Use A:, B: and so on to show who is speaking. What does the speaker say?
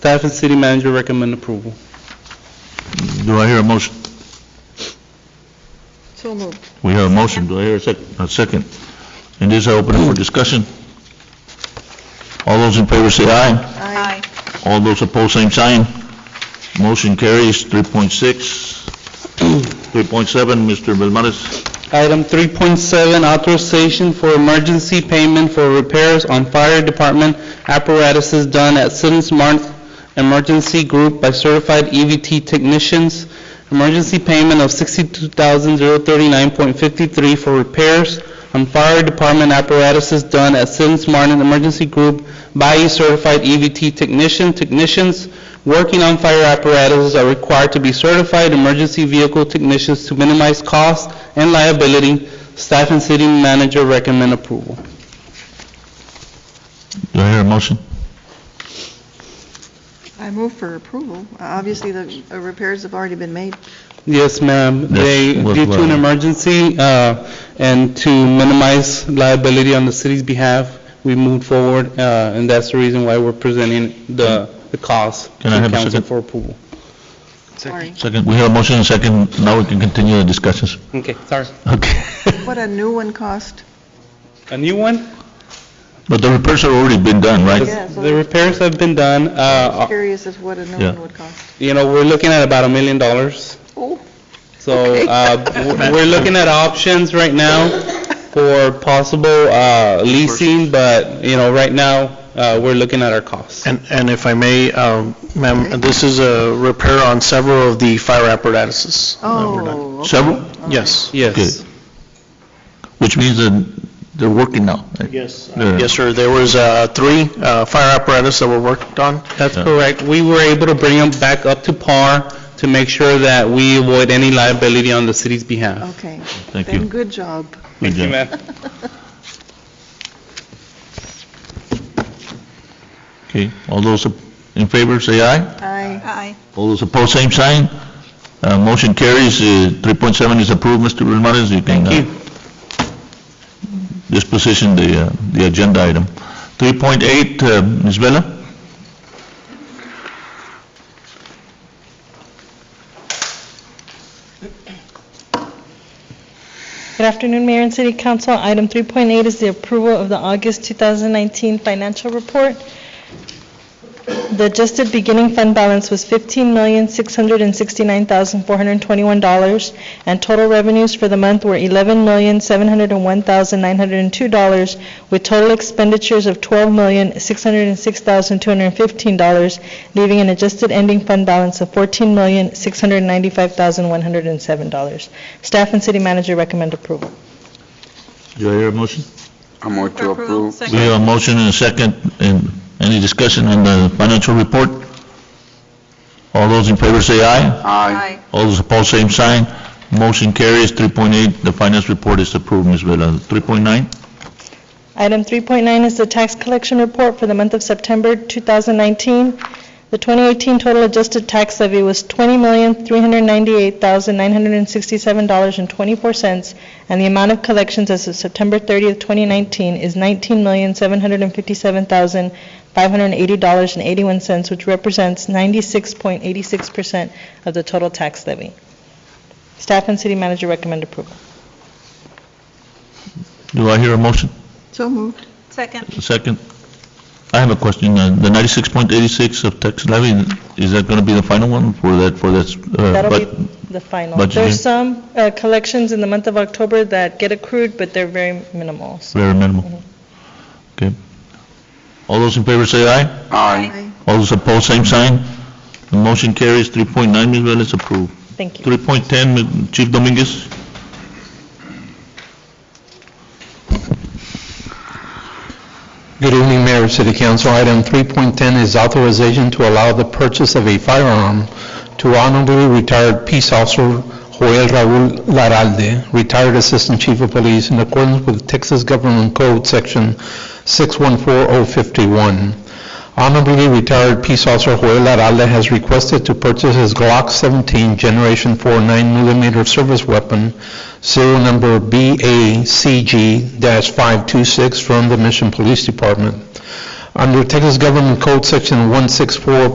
A: Staff and city manager recommend approval.
B: Do I hear a motion?
C: So moved.
B: We have a motion, do I hear a sec, a second? And this I open it for discussion. All those in favor say aye.
C: Aye.
B: All those opposed, same sign. Motion carries 3.6. 3.7, Mr. Velmaris.
A: Item 3.7, authorization for emergency payment for repairs on fire department apparatuses done at Siddons Mart Emergency Group by certified EVT technicians. Emergency payment of $62,039.53 for repairs on fire department apparatuses done at Siddons Martin Emergency Group by a certified EVT technician, technicians working on fire apparatuses are required to be certified emergency vehicle technicians to minimize cost and liability. Staff and city manager recommend approval.
B: Do I hear a motion?
C: I move for approval. Obviously, the uh, repairs have already been made.
A: Yes, ma'am. They,
B: Yes, what-
A: due to an
B: what-
A: emergency uh, and to minimize liability on the city's behalf, we moved forward, uh, and that's the reason why we're presenting the the cost to
B: Can I have a
A: council
B: second?
A: for approval.
C: Sorry.
B: Second, we have a motion and second, now we can continue the discussions.
A: Okay, sorry.
B: Okay.
C: What a new one cost.
A: A new one?
B: But the repairs have already been done, right?
C: Yeah, so-
A: The repairs have been done. uh,
C: Curious as what a new
B: Yeah.
C: one would cost.
A: You know, we're looking at about a million dollars.
C: Oh,
A: So
C: Okay.
A: uh, w- we're looking at options right now for possible uh, leasing, but, you know, right now, uh, we're looking at our costs.
D: And, and if I may, um, ma'am, this is a repair on several of the fire apparatuses. that were done.
C: oh. okay.
B: Several,
D: Yes.
A: Yes.
B: Good. which means that they're working now. right?
D: Yes.
B: Yeah.
D: Yes, sir. There was uh, three uh, fire apparatus that were worked on.
A: That's
B: Yeah.
A: correct. We were able to bring them back up to par to make sure that we avoid any liability on the city's behalf.
C: Okay.
B: Thank
C: Then
B: you.
C: good job.
B: Thank Okay, all those in favor say aye.
C: Aye.
E: Aye.
B: All those opposed, same sign. Uh, Motion carries, Uh, 3.7 is approved, Mr. Ramirez, you can uh,
A: Thank you.
B: disposition the, uh, the agenda item. 3.8, uh, Ms. Vela?
F: Good afternoon, Mayor and City Council. Item 3.8 is the approval of the August 2019 financial report. The adjusted beginning fund balance was $15,669,421, and total revenues for the month were $11,701,902, with total expenditures of $12,606,215, leaving an adjusted ending fund balance of $14,695,107. Staff and city manager recommend approval.
B: Do I hear a motion?
G: I move to approve.
B: We
E: Second.
B: have a motion and a second, and any discussion on the financial report? All those in favor say aye.
G: Aye.
E: Aye.
B: All those opposed, same sign. Motion carries, 3.8, the finance report is approved, Ms. Vela. 3.9?
F: Item 3.9 is the tax collection report for the month of September 2019. The 2018 total adjusted tax levy was $20,398,967.24, and the amount of collections as of September 30th, 2019 is $19,757,580.81, which represents 96.86% of the total tax levy. Staff and city manager recommend approval.
B: Do I hear a motion?
C: So moved.
E: Second.
B: Second, I have a question. Uh, The 96.86 of tax levy, is that going to be the final one for that, for this? uh,
F: That'll be
B: but-
F: the final.
B: budget year?
F: There's some uh, collections in the month of October that get accrued, but they're very minimal. So
B: Very minimal. Okay. All those in favor say aye.
G: Aye.
C: Aye.
B: All those opposed, same sign. The motion carries. 3.9, Ms. Vela, is approved.
F: Thank you.
B: 3.10, Mi- Chief Dominguez?
H: Good evening, Mayor, City Council. Item 3.10 is authorization to allow the purchase of a firearm to honorably retired Peace Officer Joel Raul Laralde, retired Assistant Chief of Police, in accordance with Texas Government Code Section 614051. Honorably retired Peace Officer Joel Aralde has requested to purchase his Glock 17 Generation 4 9mm service weapon, serial number BACG-526 from the Mission Police Department. Under Texas Government Code Section 164.